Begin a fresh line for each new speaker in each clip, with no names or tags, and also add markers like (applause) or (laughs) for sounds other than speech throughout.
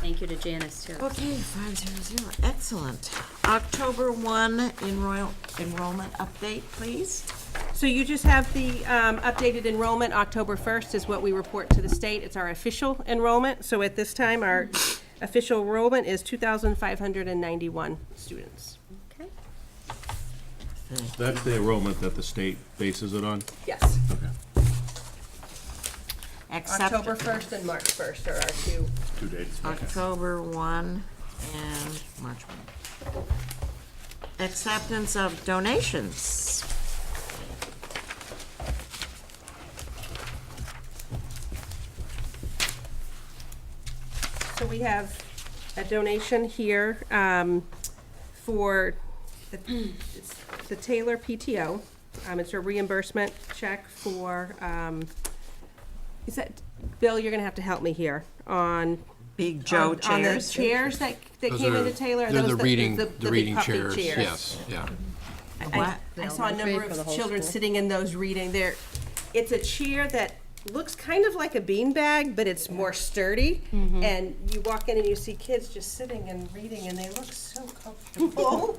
thank you to Janice too.
Okay, five zero zero, excellent. October one enroll, enrollment update, please.
So you just have the um, updated enrollment, October 1st is what we report to the state. It's our official enrollment. So at this time, our official enrollment is 2,591 students.
Okay.
That's the enrollment that the state bases it on?
Yes.
Accept-
October 1st and March 1st are our two.
Two dates.
October one and March one. Acceptance of donations.
So we have a donation here um, for the it's the Taylor PTO. Um, It's a reimbursement check for, um, is that, Bill, you're going to have to help me here on
Big Joe
on- On the
chairs.
chairs that, that
Those
came
are-
into Taylor? are
They're the
those
reading,
the
the
big
reading
puffy
chairs, yes, yeah.
I,
What?
I saw a number of children sitting in those reading. There, it's a chair that looks kind of like a beanbag, but it's more sturdy. And you walk in and you see kids just sitting and reading, and they look so (laughs) comfortable.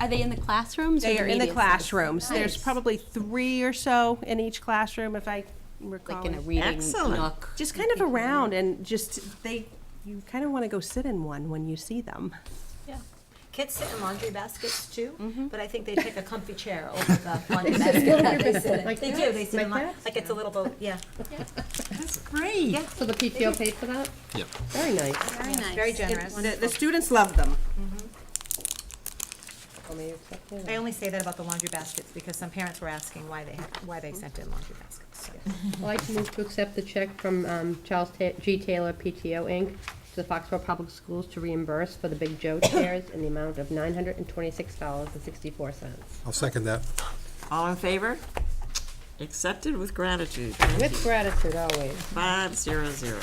Are they in the classrooms? or
They are in the
media
classrooms. There's
Nice.
probably three or so in eeach classroom, if I recall.
Like in a reading
Excellent.
nook?
Just kind of around and just, they, you kind of want to go sit in one when you see them.
Kids sit in laundry baskets
Mm-hmm.
too, but I think they take a comfy chair over
(laughs)
the laundry basket that they sit in. They do, they sit in, la- like it's a little boat, yeah.
Great.
So the PTO paid for that?
Very nice.
Very nice.
Very
It-
generous.
The, the students love them.
I only say that about the laundry baskets because some parents were asking why they, had- why they sent in laundry baskets. so.
I'd like to move to accept the check from um, Charles Ta- G. Taylor PTO Inc. to the Foxborough Public Schools to reimburse for the Big (coughs) Joe chairs in the amount of $926.64.
I'll second that.
All in favor? Accepted with gratitude. Thank you.
With gratitude always.
Five zero zero.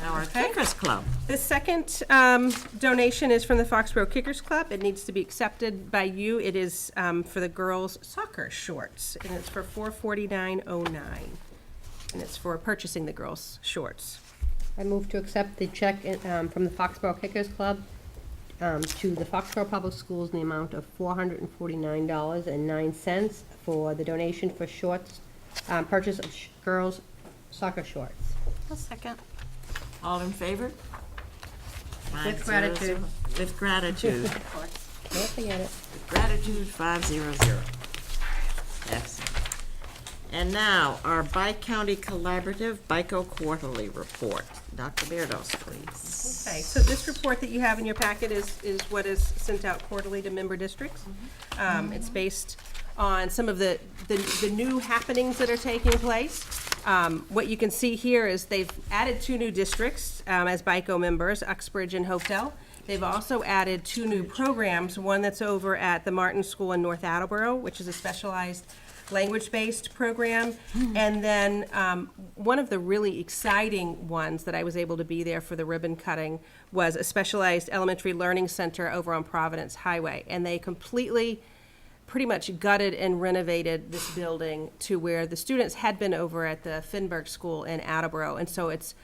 Now our Kickers Club.
The second um, donation is from the Foxborough Kickers Club. It needs to be accepted by you. It is um, for the girls' soccer shorts, and it's for four forty-nine oh nine. And it's for purchasing the girls' shorts.
I move to accept the check in- um, from the Foxborough Kickers Club um, to the Foxborough Public Schools in the amount of $449.09 for the donation for shorts, um, purchase of sh- girls' soccer shorts.
I'll second.
All in favor? Five
With
zero
gratitude.
zero. With gratitude.
Don't forget it.
Gratitude five zero zero. Excellent. And now, our Bi-County Collaborative BICO Quarterly Report. Dr. Beardos, please.
Okay, so this report that you have in your packet is, is what is sent out quarterly to member districts. Um, it's based on some of the, the, the new happenings that are taking place. Um, what you can see here is they've added two new districts, um, as BICO members, Uxbridge and Hopedale. They've also added two new programs, one that's over at the Martin School in North Attleboro, which is a specialized language-based program. And then um, one of the really exciting ones that I was able to be there for the ribbon cutting was a specialized elementary learning center over on Providence Highway. And they completely, pretty much gutted and renovated this building to where the students had been over at the Finberg School in Attleboro. And so it's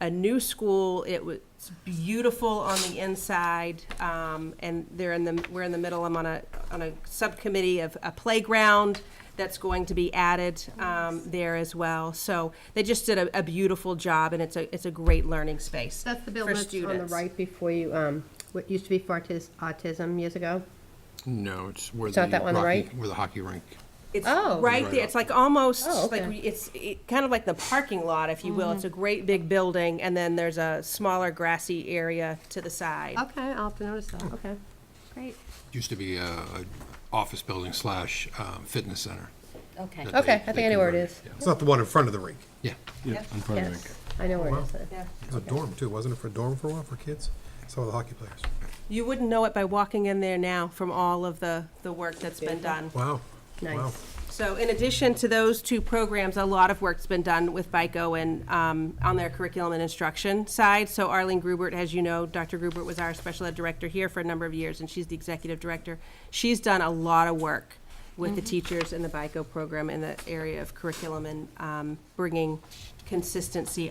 a new school. It was beautiful on the inside, um, and they're in the we're in the middle. I'm on a on a subcommittee of a playground that's going to be added um, there as well. So they just did a, a beautiful job, and it's a it's a great learning space.
That's the
for
building that's on the
students.
right before you, um, what used to be for autis- autism years ago.
No, it's where
It's
the
not that one,
hockey,
right?
where the hockey rink.
It's
Oh.
right there. It's like almost
Oh, okay. Mm-hmm.
like we- it's it, kind of like the parking lot, if you will. It's a great big building, and then there's a smaller grassy area to the side.
Okay, I'll have to notice that, okay.
Great.
Used to be a, a office building slash um, fitness center.
Okay.
that
Okay,
they-
I
they
think I know where it
converted,
is.
yeah.
It's not the one in front of the rink.
Yeah,
Yeah, in front of
Yes, I know where it is.
It was a dorm too, wasn't it? For a dorm for a while for kids. Some of the hockey players.
You wouldn't know it by walking in there now from all of the the work that's been done.
Wow. Wow.
Nice.
So in addition to those two programs, a lot of work's been done with BICO and um, on their curriculum and instruction side. So Arlene Grubert, as you know, Dr. Grubert was our special ed director here for a number of years, and she's the executive director. She's done a lot of work with the teachers in the BICO program in the area of curriculum and um, bringing consistency